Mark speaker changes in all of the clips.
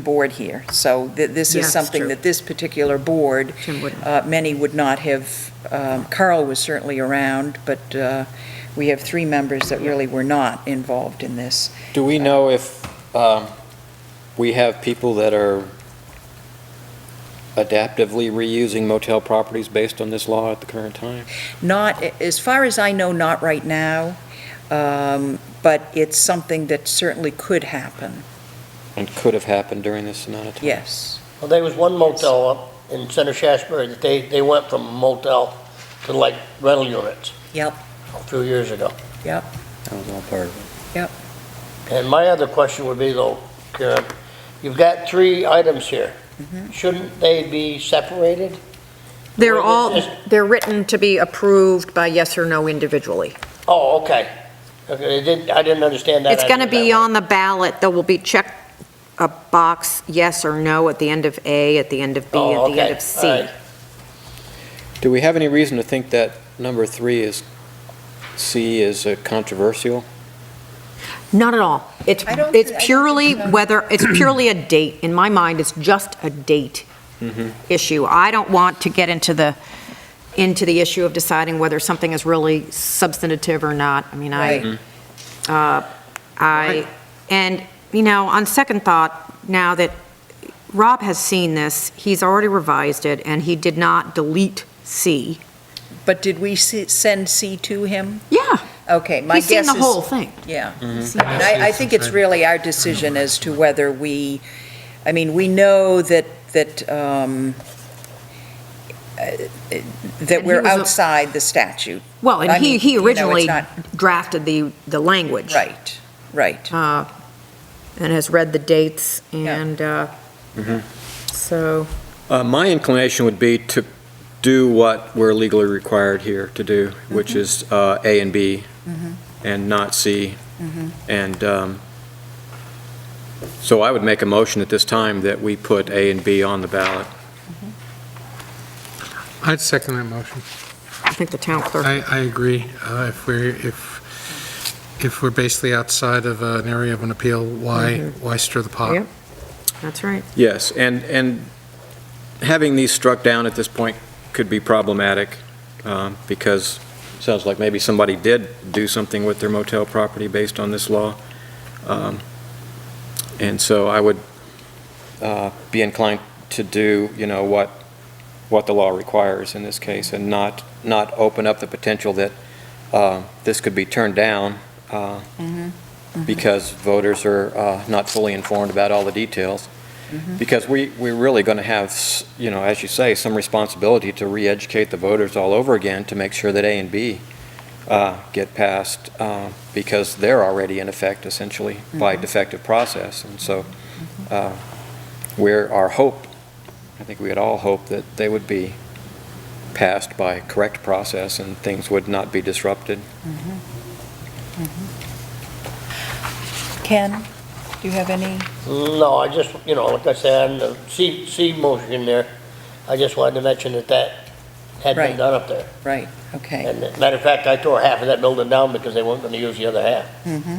Speaker 1: board here. So th- this
Speaker 2: Yeah,
Speaker 1: is
Speaker 2: it's
Speaker 1: something
Speaker 2: true.
Speaker 1: that this particular board,
Speaker 2: Jim wouldn't.
Speaker 1: uh, many would not have, um, Carl was certainly around, but uh, we have three members that really were not involved in this.
Speaker 3: Do we know if um, we have people that are adaptively reusing motel properties based on this law at the current time?
Speaker 1: Not, as far as I know, not right now, um, but it's something that certainly could happen,
Speaker 3: And could have happened during this amount of time?
Speaker 1: yes.
Speaker 4: Well, there was one motel up in Center Shasberry that they, they went from motel to like rental units
Speaker 1: Yep,
Speaker 4: a few years ago.
Speaker 1: yep,
Speaker 3: That was all part of it.
Speaker 4: And my other question would be though, Karen, you've got three items here.
Speaker 2: Mm-hmm.
Speaker 4: Shouldn't they be separated?
Speaker 2: They're
Speaker 4: Well,
Speaker 2: all,
Speaker 4: it's
Speaker 2: they're written to be approved by yes or no individually.
Speaker 4: Oh, okay. Okay, they didn't, I didn't understand that.
Speaker 2: It's going to
Speaker 4: idea that
Speaker 2: be
Speaker 4: way.
Speaker 2: on the ballot, there will be check a box, yes or no, at the end of A, at the end of B,
Speaker 4: Oh,
Speaker 2: at the end
Speaker 4: okay.
Speaker 2: of C.
Speaker 4: All right.
Speaker 3: Do we have any reason to think that number three is, C is uh, controversial?
Speaker 2: Not at all. It's,
Speaker 1: I don't
Speaker 2: it's
Speaker 1: thi- I don't
Speaker 2: purely
Speaker 1: think so.
Speaker 2: whether, it's purely a date. In my mind, it's just a date
Speaker 4: Mm-hmm.
Speaker 2: issue. I don't want to get into the, into the issue of deciding whether something is really substantive or not. I mean,
Speaker 1: Right.
Speaker 2: I, uh, I, and, you know, on second thought, now that Rob has seen this, he's already revised it, and he did not delete C.
Speaker 1: But did we se- send C to him?
Speaker 2: Yeah,
Speaker 1: Okay, my
Speaker 2: he's
Speaker 1: guess is...
Speaker 2: seen the whole thing.
Speaker 1: Yeah. I mean, I, I think it's really our decision as to whether we, I mean, we know that, that, um, uh, that
Speaker 2: he
Speaker 1: we're
Speaker 2: was a-
Speaker 1: outside the statute.
Speaker 2: Well, and
Speaker 1: I
Speaker 2: he,
Speaker 1: mean,
Speaker 2: he
Speaker 1: you know, it's
Speaker 2: originally
Speaker 1: not-
Speaker 2: drafted the, the language.
Speaker 1: Right, right.
Speaker 2: uh, and has read the dates,
Speaker 1: Yeah.
Speaker 2: and uh, so,
Speaker 3: Uh, My inclination would be to do what we're legally required here to do, which is uh, A and B, and not C. And um, so I would make a motion at this time that we put A and B on the ballot.
Speaker 5: I'd second that motion.
Speaker 2: I think the town clerk,
Speaker 5: I, I agree. Uh, If we're, if, if we're basically outside of uh, an area of an appeal, why, why stir the pot?
Speaker 2: Yep. that's right.
Speaker 3: Yes, and, and having these struck down at this point could be problematic, um, because it sounds like maybe somebody did do something with their motel property based on this law. Um, And so I would uh, be inclined to do, you know, what, what the law requires in this case, and not, not open up the potential that uh, this could be turned down, uh, because voters are uh, not fully informed about all the details. Because we, we're really going to have, s- you know, as you say, some responsibility to re-educate the voters all over again to make sure that A and B uh, get passed, uh, because they're already in effect essentially by defective process. And so uh, we're, our hope, I think we had all hoped that they would be passed by correct process and things would not be disrupted.
Speaker 1: Ken, do you have any?
Speaker 4: No, I just, you know, like I said, on the C, C motion there, I just wanted to mention that that had
Speaker 1: Right.
Speaker 4: been done up there.
Speaker 1: Right, okay.
Speaker 4: And matter of fact, I tore half of that building down because they weren't gonna use the other half.
Speaker 1: Mm-hmm.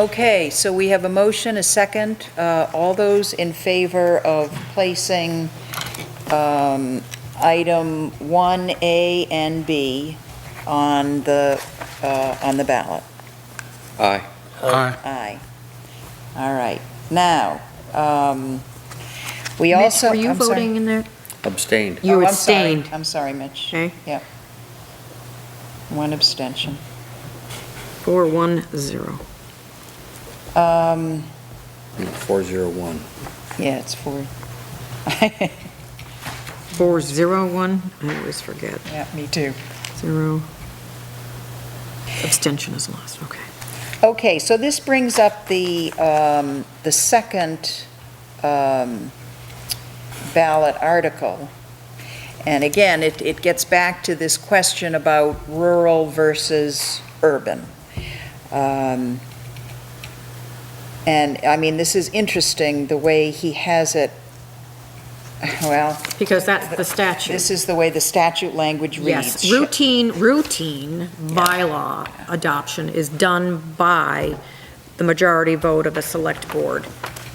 Speaker 1: Okay, so we have a motion, a second. Uh, All those in favor of placing um, item 1A and B on the, uh, on the ballot?
Speaker 3: Aye.
Speaker 5: Aye.
Speaker 1: Aye. All right. Now, um, we
Speaker 2: Mitch,
Speaker 1: also...
Speaker 2: were you
Speaker 1: I'm sorry.
Speaker 2: voting in there?
Speaker 6: Abstained.
Speaker 1: Oh,
Speaker 2: You
Speaker 1: I'm sorry.
Speaker 2: abstained.
Speaker 1: I'm sorry, Mitch.
Speaker 2: Okay.
Speaker 1: Yep. One abstention.
Speaker 2: Four, one, zero.
Speaker 1: Um,
Speaker 6: 401.
Speaker 1: Yeah, it's four.
Speaker 2: Four, zero, one, I always forget.
Speaker 1: Yeah, me too.
Speaker 2: Zero. Abstention is lost, okay.
Speaker 1: Okay, so this brings up the, um, the second um, ballot article. And again, it, it gets back to this question about rural versus urban. Um, And, I mean, this is interesting, the way he has it, well,
Speaker 2: Because that's the statute.
Speaker 1: this is the way the statute language reads.
Speaker 2: Yes, routine, routine bylaw adoption is done by the majority vote of a select board.